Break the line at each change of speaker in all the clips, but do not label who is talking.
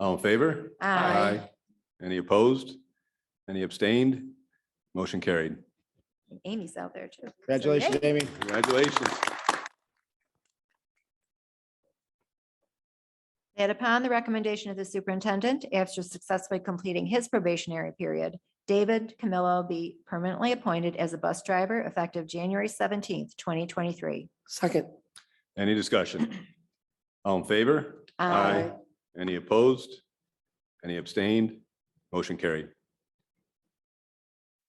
All in favor?
Aye.
Any opposed? Any abstained? Motion carried.
Amy's out there too. So
Congratulations,
yay.
Amy.
Congratulations.
That upon the recommendation of the superintendent, after successfully completing his probationary period, David Camillo be permanently appointed as a bus driver effective January seventeenth, twenty twenty-three.
second,
Any discussion? All in favor?
Aye.
Any opposed? Any abstained? Motion carried.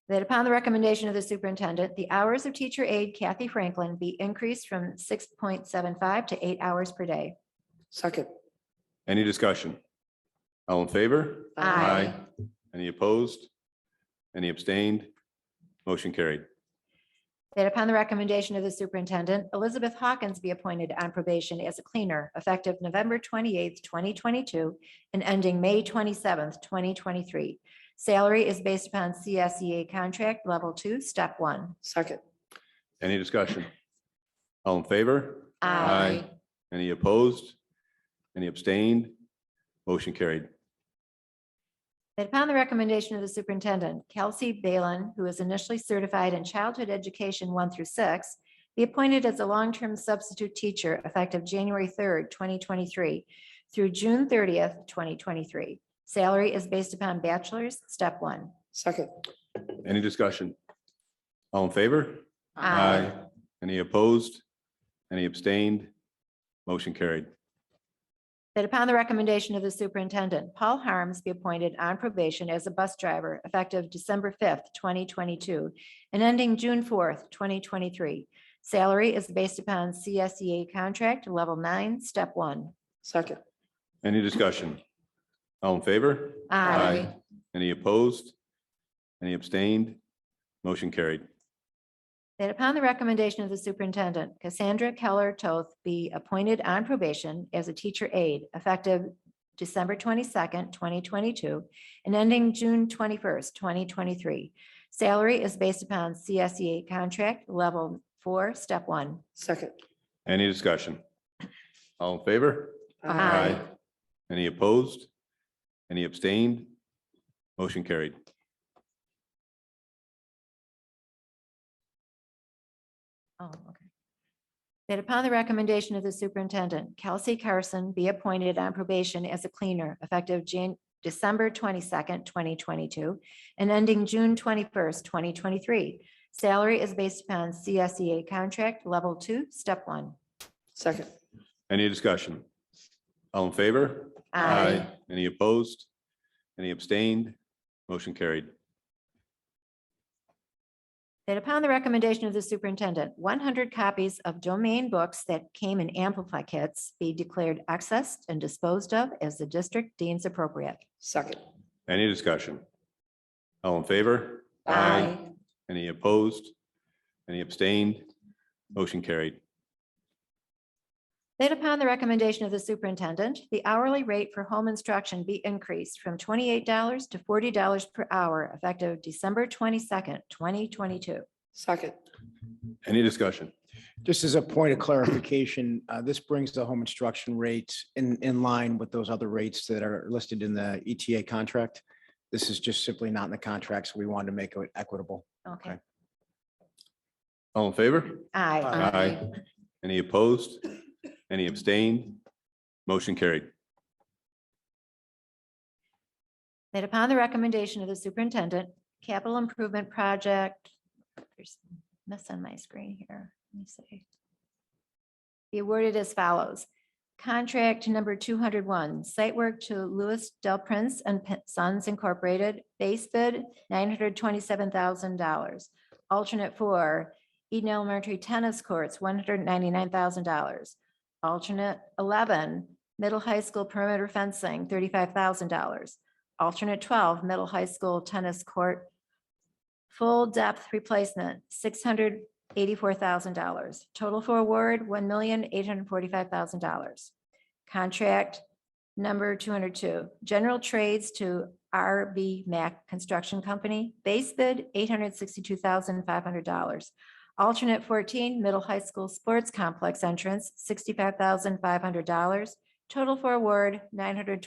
That upon the recommendation of the superintendent, the hours of teacher aide Kathy Franklin be increased from six point seven five to eight hours per day.
second.
Any discussion? All in favor?
Aye.
Any opposed? Any abstained? Motion carried.
That upon the recommendation of the superintendent, Elizabeth Hawkins be appointed on probation as a cleaner effective November twenty-eighth, twenty twenty-two and ending May twenty-seventh, twenty twenty-three. Salary is based upon CSEA contract level two, step one.
Second,
Any discussion? All in favor?
Aye.
Any opposed? Any abstained? Motion carried.
That upon the recommendation of the superintendent, Kelsey Balin, who is initially certified in childhood education one through six, be appointed as a long-term substitute teacher effective January third, twenty twenty-three through June thirtieth, twenty twenty-three. Salary is based upon bachelor's, step one.
second,
Any discussion? All in favor?
Aye.
Any opposed? Any abstained? Motion carried.
That upon the recommendation of the superintendent, Paul Harms be appointed on probation as a bus driver effective December fifth, twenty twenty-two and ending June fourth, twenty twenty-three. Salary is based upon CSEA contract level nine, step one.
second,
Any discussion? All in favor? Any opposed? Any abstained? Motion carried.
That upon the recommendation of the superintendent, Cassandra Keller Toth be appointed on probation as a teacher aide effective December twenty-second, twenty twenty-two and ending June twenty-first, twenty twenty-three. Salary is based upon CSEA contract level four, step one.
second.
Any discussion? All in favor?
Aye.
Any opposed? Any abstained? Motion carried.
Oh, okay. That upon the recommendation of the superintendent, Kelsey Carson be appointed on probation as a cleaner effective Jan- December twenty-second, twenty twenty-two and ending June twenty-first, twenty twenty-three. Salary is based upon CSEA contract level two, step one.
Second,
Any discussion? All in favor? Any opposed? Any abstained? Motion carried.
That upon the recommendation of the superintendent, one hundred copies of domain books that came in Amplify kits be declared accessed and disposed of as the district deems appropriate.
second.
Any discussion? All in favor?
Aye.
Any opposed? Any abstained? Motion carried.
That upon the recommendation of the superintendent, the hourly rate for home instruction be increased from twenty-eight dollars to forty dollars per hour effective December twenty-second, twenty twenty-two.
Second,
Any discussion?
Just as a point of clarification, uh, this brings the home instruction rates in, in line with those other rates that are listed in the ETA contract. This is just simply not in the contract, so we wanted to make it equitable.
Okay.
Okay.
All in favor?
Aye.
Aye. Any opposed? Any abstained? Motion carried.
That upon the recommendation of the superintendent, capital improvement project, there's a mess on my screen here, let me see. Be awarded as follows. Contract number two hundred one, site work to Louis Del Prince and P- Sons Incorporated, base bid nine hundred twenty-seven thousand dollars. Alternate four, Eden Elementary Tennis Courts, one hundred ninety-nine thousand dollars. Alternate eleven, middle high school perimeter fencing, thirty-five thousand dollars. Alternate twelve, middle high school tennis court. Full depth replacement, six hundred eighty-four thousand dollars. Total for award, one million eight hundred forty-five thousand dollars. Contract number two hundred two, general trades to RB Mac Construction Company. Base bid, eight hundred sixty-two thousand five hundred dollars. Alternate fourteen, middle high school sports complex entrance, sixty-five thousand five hundred dollars. Total for award, nine hundred